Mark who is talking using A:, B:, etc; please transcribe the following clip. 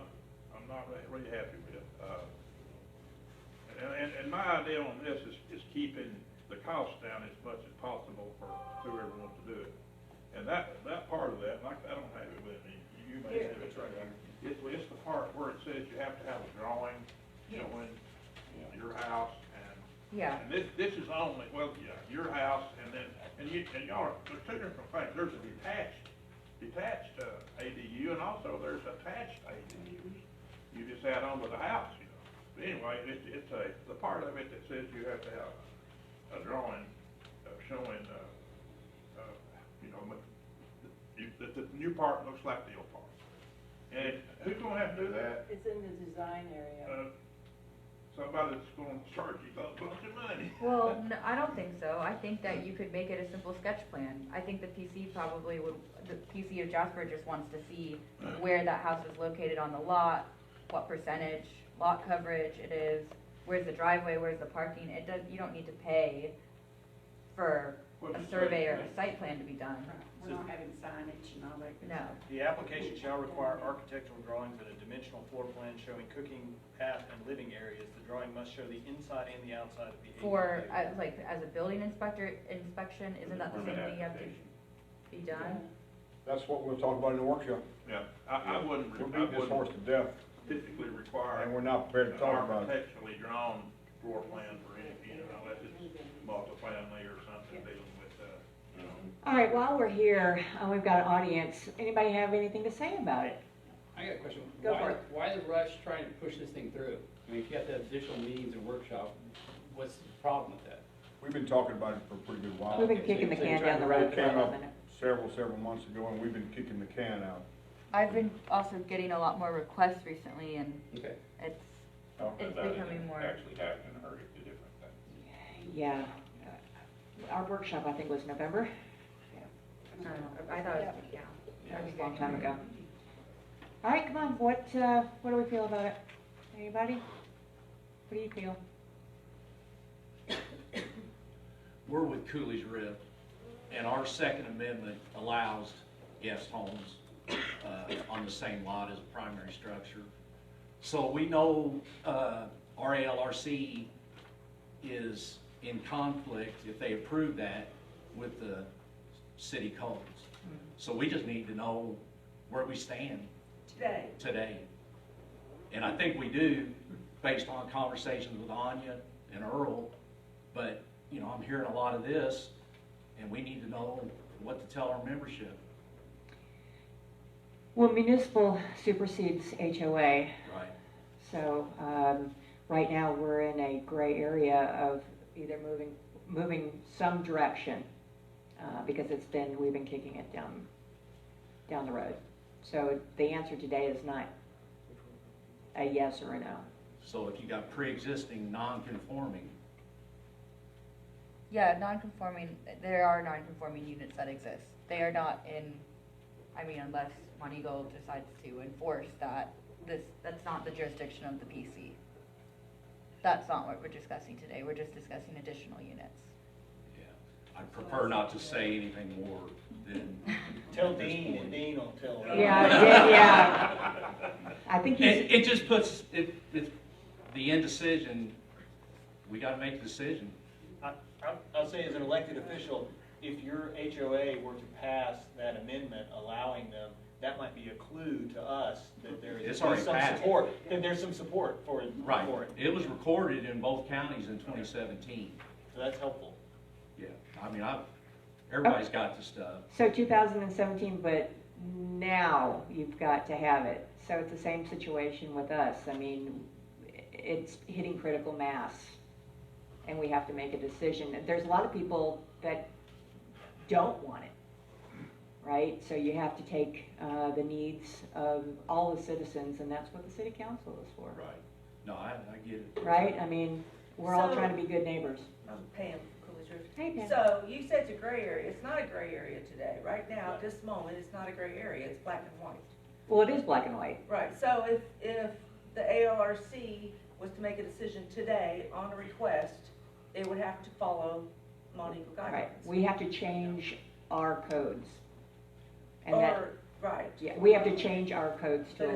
A: I'm not re- really happy with. Uh, And, and, and my idea on this is, is keeping the cost down as much as possible for whoever wants to do it. And that, that part of that, like, I don't have it with me, you may have it right here. It's, it's the part where it says you have to have a drawing showing your house and.
B: Yeah.
A: And this, this is only, well, yeah, your house and then, and you, and y'all, are- there's two different things. There's a detached, detached uh, ADU and also there's attached ADUs. You just add on to the house, you know. But anyway, it, it's a, the part of it that says you have to have a drawing uh, showing, uh, uh, you know, ma- you- that the new part looks like the old part. And who's gonna have to do that?
C: It's in the design area.
A: Uh, Somebody that's gonna charge you a bunch of money.
B: Well, no, I don't think so. I think that you could make it a simple sketch plan. I think the PC probably would, the PC of Jasper just wants to see where that house is located on the lot, what percentage lot coverage it is, where's the driveway, where's the parking. It does, you don't need to pay for
A: Well,
B: a
A: it's
B: survey or
A: like-
B: a site plan to be done.
C: We're not having signage and all that. good
B: No.
C: stuff.
D: The application shall require architectural drawings and a dimensional floor plan showing cooking, path, and living areas. The drawing must show the inside and the outside of the ADU.
B: For, uh, like, as a building inspector inspection, isn't that the same
A: Permit
B: thing you have to
A: application.
B: be done?
E: That's what we'll talk about in the workshop.
A: Yeah, I, I wouldn't,
E: We're
A: I
E: beating this horse
A: wouldn't
E: to death,
A: typically
E: and we're
A: require
E: not
A: an
E: prepared to talk about it.
A: architecturally drawn floor plan for any, you know, unless it's multifamily or something dealing with, uh, you know.
F: All right, while we're here, uh, we've got an audience. Anybody have anything to say about it?
G: I got a question.
F: Go
G: Why-
F: for it.
G: Why the rush trying to push this thing through? I mean, if you have to have additional meetings and workshop, what's the problem with that?
E: We've been talking about it for a pretty good while.
F: We've been kicking the can down the road
E: It
F: for
E: came
F: a
E: up
F: minute.
E: several, several months ago, and we've been kicking the can out.
B: I've been also getting a lot more requests recently and
G: Okay.
B: it's,
H: talking
B: It's
H: about it
B: becoming
H: and
B: more-
H: actually happening, heard it, the different things.
F: Yeah, Uh, our workshop, I think, was November,
B: I don't know, I thought it was, yeah.
F: that was a long time ago. All right, come on, what, uh, what do we feel about it? Anybody? What do you feel?
I: we're with Cooley's Rip, and our Second Amendment allows guest homes uh, on the same lot as a primary structure. So we know uh, RALRC is in conflict, if they approve that, with the city codes. So we just need to know where we stand
C: Today,
I: today. And I think we do, based on conversations with Anya and Earl, but, you know, I'm hearing a lot of this, and we need to know what to tell our membership.
F: Well, municipal supersedes HOA,
I: Right.
F: so, um, right now, we're in a gray area of either moving, moving some direction, uh, because it's been, we've been kicking it down, down the road. So the answer today is not a yes or a no.
I: So if you got pre-existing non-conforming,
B: Yeah, non-conforming, there are non-conforming units that exist. They are not in, I mean, unless Monty Gold decides to enforce that, this, that's not the jurisdiction of the PC. That's not what we're discussing today, we're just discussing additional units.
I: yeah, I'd prefer not to say anything more than.
D: Tell Dean, and Dean will tell.
F: Yeah, I did, yeah. I think
I: It,
F: he's,
I: it just puts, it, it's the indecision, we gotta make a decision.
D: I, I- I'll say as an elected official, if your HOA were to pass that amendment allowing them, that might be a clue to us that there is
I: It's
D: some
I: already passed.
D: support, that there's some support for,
I: Right,
D: for it.
I: it was recorded in both counties in twenty seventeen.
D: So that's helpful.
I: Yeah, I mean, I've, everybody's got the stuff.
F: so 2017, but now you've got to have it. So it's the same situation with us. I mean, it's hitting critical mass, and we have to make a decision. There's a lot of people that don't want it, right? So you have to take uh, the needs of all the citizens, and that's what the city council is for,
I: Right. No, I, I get it.
F: right? I mean, we're all
C: So-
F: trying to be good neighbors.
C: I'm Pam, Coolidge River.
F: Hey, Pam.
C: So you said it's a gray area, it's not a gray area today, right now, at this moment, it's not a gray area, it's black and white.
F: Well, it is black and white.
C: Right, so if, if the AORC was to make a decision today on a request, it would have to follow Montegoal
F: Right,
C: guidelines.
F: we have to change our codes. And that,
C: Or, right.
F: yeah, we have to change our codes to
C: But